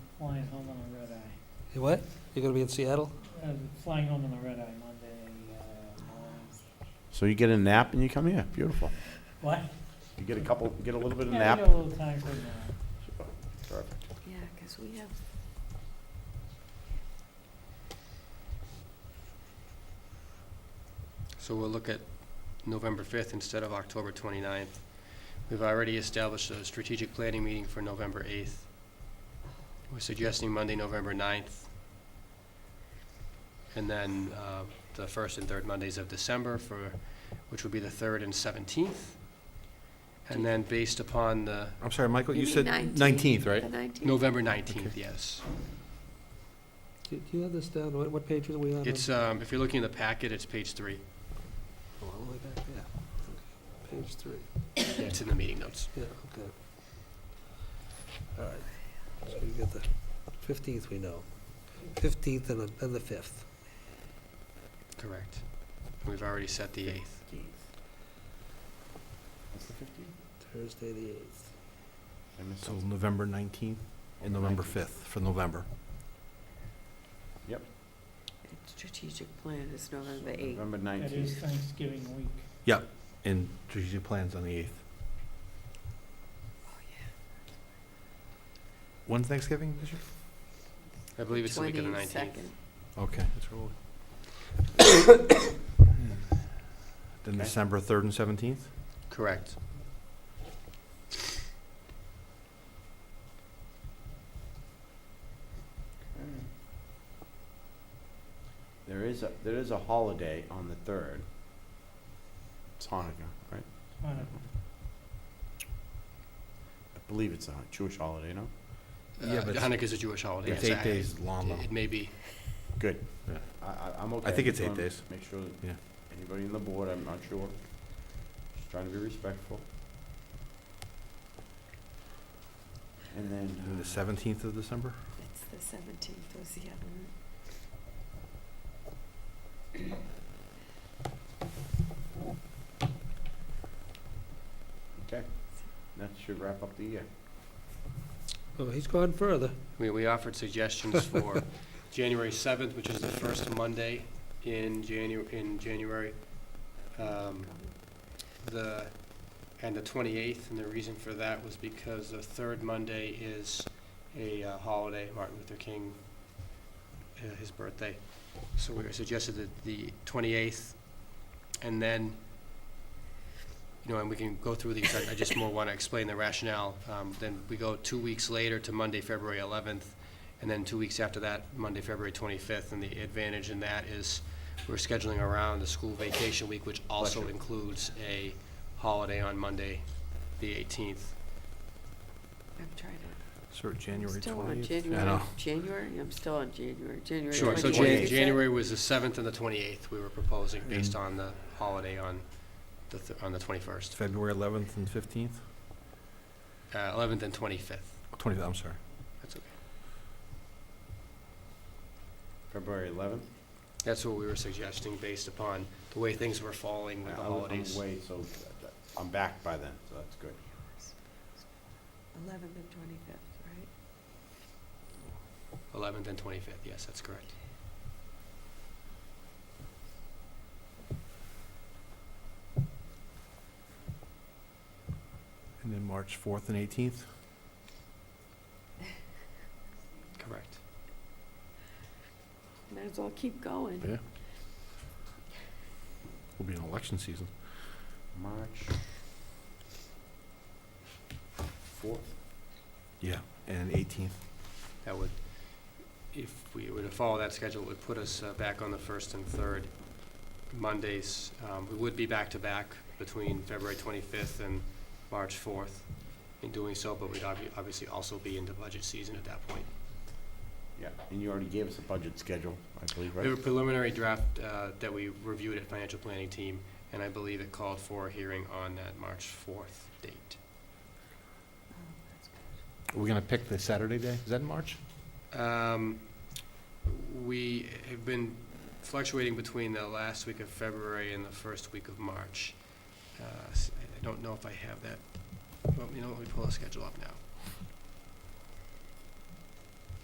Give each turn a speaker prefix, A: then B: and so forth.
A: flying home on the red eye.
B: You What? You're gonna be in Seattle?
A: Uh, Flying home on the red eye Monday, uh, morning.
C: So you get a nap and you come here. Beautiful.
A: What?
C: You get a couple, get a little bit of
A: Yeah, I
C: nap.
A: got a little time for now.
C: Perfect.
D: Yeah, because we have.
E: So we'll look at November 5th instead of October 29th. We've already established a strategic planning meeting for November 8th. We're suggesting Monday, November 9th. And then uh, the first and third Mondays of December for, which would be the 3rd and 17th. And then based upon the
F: I'm sorry, Michael, you
D: mean
F: said 19th,
D: The
F: right?
D: nineteenth.
E: November 19th, yes.
B: Do do you have this down? What, what page are we on?
E: It's, um, if you're looking in the packet, it's page three.
B: Oh, all the way back, yeah. Okay. Page three.
E: It's in the meeting notes.
B: Yeah, okay. All right, so we got the fifteenth we know, fifteenth and the, and the fifth.
E: Correct. We've already set the 8th.
B: Thursday, the eighth.
C: I missed
F: So
C: something.
F: November 19th and November 5th for November.
D: Strategic plan is November eighth.
C: November
A: That is
C: nineteenth.
A: Thanksgiving week.
F: And strategic plans on the 8th.
D: Oh, yeah.
F: When's Thanksgiving this year?
E: I believe it's the week of the 19th.
D: 22nd.
F: Okay. that's right. Then
C: Okay.
F: December 3rd and 17th?
E: Correct.
C: There is a, there is a holiday on the third. It's Hanukkah, right?
A: Kind of
C: I believe it's a Jewish holiday, no?
F: Yeah,
E: Uh,
F: but it's-
E: Hanukkah is a Jewish holiday.
F: It's
E: yes,
F: eight
E: I-
F: days long, though.
E: It may be.
C: Good.
F: Yeah.
C: I, I, I'm okay.
F: I think
C: I
F: it's
C: just
F: eight
C: wanna
F: days.
C: Make sure that
F: Yeah.
C: anybody in the board, I'm not sure. Just trying to be respectful. And then.
F: And
C: uh,
F: the 17th of December?
D: It's the seventeenth was the other one.
C: Okay, that should wrap up the year.
B: Oh, he's gone further.
E: We, we offered suggestions for January 7th, which is the first Monday in Janu, in January. Um, The, and the 28th, and the reason for that was because the third Monday is a uh, holiday, Martin Luther King, uh, his birthday. So we suggested that the 28th, and then, you know, and we can go through these, I I just more want to explain the rationale. Um, Then we go two weeks later to Monday, February 11th, and then two weeks after that, Monday, February 25th. And the advantage in that is we're scheduling around the school vacation week, which also
C: Pleasure.
E: includes a holiday on Monday, the 18th.
D: I'm trying to.
F: Sir,
D: I'm
F: January
D: Still on
F: 28th?
D: January.
F: I know.
D: January, I'm still on January, January.
E: Sure, so
D: 28th,
E: Jan-
D: you said?
E: January was the 7th and the 28th we were proposing, based
F: And-
E: on the holiday on the, th- on the 21st,
F: February 11th and 15th?
E: uh, 11th and 25th.
F: 20th, I'm sorry.
E: That's okay.
C: February eleventh?
E: That's what we were suggesting, based upon the way things were falling with the holidays.
C: I'm away, so uh, I'm back by then, so that's good.
D: Eleventh and twenty-fifth, right?
E: 11th and 25th, yes, that's correct.
F: And then March 4th and 18th?
E: Correct.
D: Might as well keep going.
F: Yeah. Will be an election season.
C: March fourth,
F: Yeah. And 18th.
E: That would, if we were to follow that schedule, it would put us uh, back on the first and third Mondays. Um, We would be back-to-back between February 25th and March 4th in doing so, but we'd obvi- obviously also be into budget season at that point.
C: yeah, and you already gave us a budget schedule, I believe,
E: We have
C: right?
E: a preliminary draft uh, that we reviewed at Financial Planning Team, and I believe it called for a hearing on that March 4th date.
D: Oh, that's good.
F: Are we going to pick the Saturday day? Is that in March?
E: Um, We have been fluctuating between the last week of February and the first week of March. Uh, s- I don't know if I have that, well, you know, what, let me pull the schedule up now.